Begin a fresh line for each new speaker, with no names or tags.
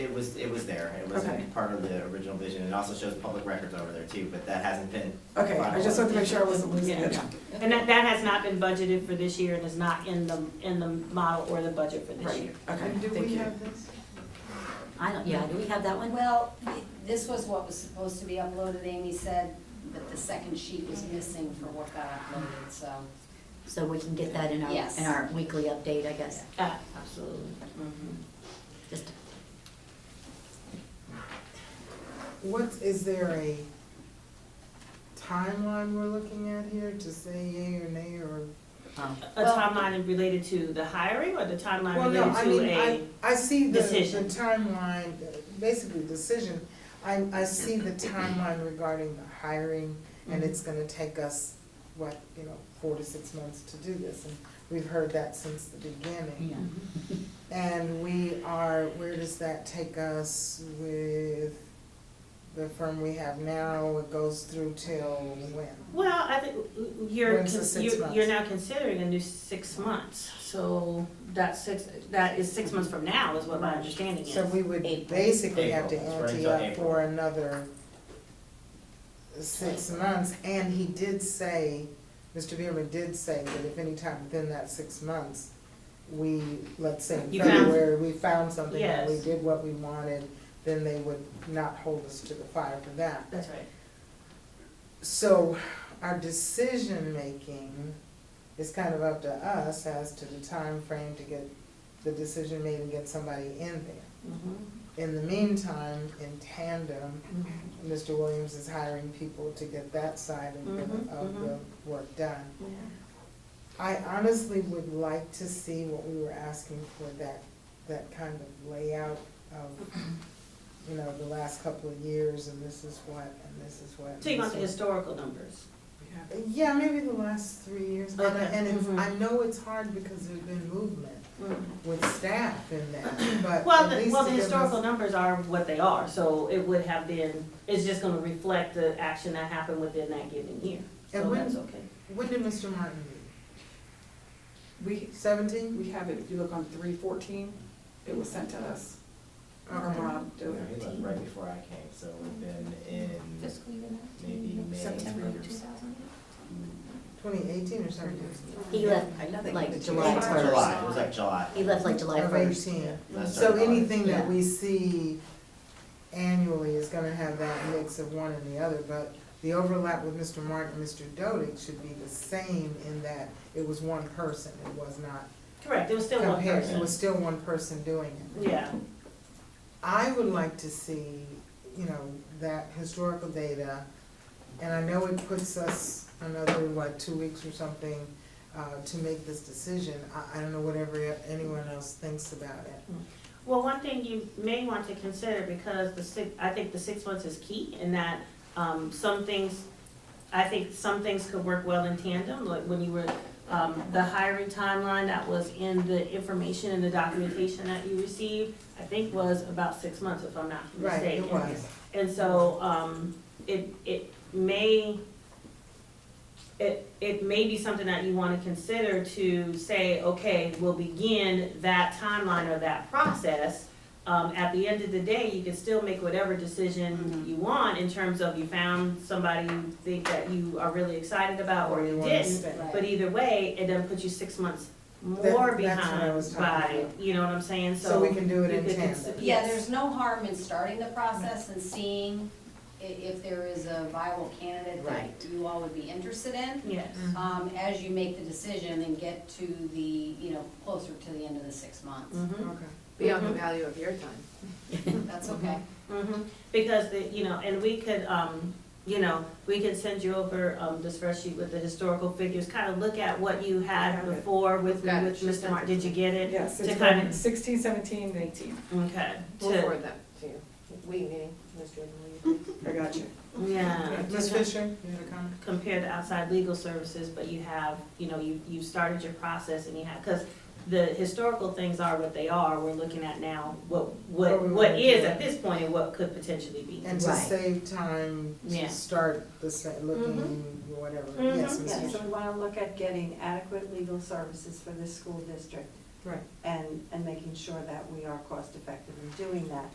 was, it was there, it was
Okay.
part of the original vision, it also shows public records over there too, but that hasn't been.
Okay, I just wanted to make sure I wasn't losing it.
Yeah. And that, that has not been budgeted for this year and is not in the, in the model or the budget for this
Right,
year.
okay,
And do
thank
we
you.
have this?
I don't, yeah, do we have that one?
Well, this was what was supposed to be uploaded, Amy said, but the second sheet was missing for what got uploaded, so.
So we can get that in our,
Yes.
in our weekly update, I guess.
Uh,
Absolutely.
Mm-hmm.
Just,
What, is there a timeline we're looking at here to say yay or nay or?
um,
A
Well-
timeline related to the hiring or the timeline
Well, no, I
related
mean,
to
I,
a,
I see the,
decision.
the timeline, basically decision. I, I see the timeline regarding the hiring
Mm-hmm.
and it's gonna take us, what, you know, four to six months to do this. And we've heard that since the beginning.
Mm-hmm.
yeah.
And we are, where does that take us with the firm we have now? It goes through till when?
well, I think you're,
When's the
cons-
six
you're,
months?
you're now considering a new six months. So that's six, that is six months from now is what my understanding is.
So we would
April.
basically have to
April, it's right
ante
until
up
April.
for another six months. And he did say, Mr. Beerman did say that if any time within that six months, we, let's say in
You found-
February, we found something and we
Yes.
did what we wanted, then they would not hold us to the fire for that.
That's right.
So our decision-making is kind of up to us as to the time frame to get the decision made and get somebody in there.
Mhm.
In the meantime, in tandem,
Mm-hmm.
Mr. Williams is hiring people to get that side of
Mhm,
the, of the work done.
Yeah.
I honestly would like to see what we were asking for, that, that kind of layout of, you know, the last couple of years, and this is what, and this is what.
So you
and
want
this
the
is-
historical numbers?
Yeah, maybe the last three years, and, I-
Okay.
and it's,
Mhm.
I know it's hard because there's been movement with staff in that,
Well,
but at
the,
least
well, the
to give
historical
us.
numbers are what they are, so it would have been, it's just gonna reflect the action that happened within that given year.
And
So
when-
that's okay.
When did Mr. Martin leave?
We,
Seventeen?
we have it, if you look on three fourteen, it was sent to us, or
Okay.
Rob
No,
did it.
he left right before I came, so we've been in
Fiscal year
maybe May.
September
or
two
so.
thousand.
Twenty eighteen or seventeen?
He left
I know they
like
gave it to
July
us.
first.
July, it was like July.
He left like July
Of
first.
eighteen.
Last
So
started August.
anything that
Yeah.
we see annually is gonna have that mix of one and the other, but the overlap with Mr. Martin and Mr. Dodig should be the same in that it was one person, it was not
Correct, it was still one
compared, it
person.
was still one person doing it.
Yeah,
I would like to see, you know, that historical data, and I know it puts us another, what, two weeks or something, uh, to make this decision. I, I don't know whatever anyone else thinks about it.
well, one thing you may want to consider, because the six, I think the six months is key in that, um, some things, I think some things could work well in tandem, like when you were, um, the hiring timeline that was in the information and the documentation that you received, I think was about six months, if I'm not
Right,
mistaken.
it was.
And so, um, it, it may, it, it may be something that you wanna consider to say, okay, we'll begin that timeline or that process. Um, at the end of the day, you can still make whatever decision
Mm-hmm.
you want in terms of you found somebody you think that you are really excited about or you
Or wanna
didn't.
stay.
But either way, it doesn't put you six months
That-
more
that's what I
behind
was talking
by,
about.
you know what I'm saying, so.
So we can do it
you
in
could
tandem.
consi-
Yeah,
yes.
there's no harm in starting the process and seeing i- if there is a viable candidate
Right.
that you all would be interested in.
Yes.
Mm-hmm.
Um, as you make the decision and get to the, you know, closer to the end of the six months.
Mhm.
Okay.
Beyond the
value of your time.
Mm-hmm.
That's okay.
hmm because the, you know, and we could, um, you know, we could send you over, um, the spreadsheet with the historical figures, kind of look at what you had
Got it.
before with,
Got it.
with Mr. Martin, did you get it?
Yes,
To
it's
kind
been
of,
sixteen, seventeen, eighteen.
okay,
We'll
to,
forward that to you. We, meaning, Mr. Jordan, will you?
Mm-hmm.
I got you.
yeah.
Ms.
to
Fisher, you had a comment?
Compare the outside legal services, but you have, you know, you, you started your process and you have, because the historical things are what they are, we're looking at now, what,
What
what,
we
what
wanna
is
do.
at this point and what could potentially be.
And to
Right.
save time,
Yeah.
to start the, sa- looking, whatever,
Mhm.
yes, Ms.
Yeah,
Fisher.
so we wanna look at getting adequate legal services for this school district.
Right.
And, and making sure that we are cost effective in doing that.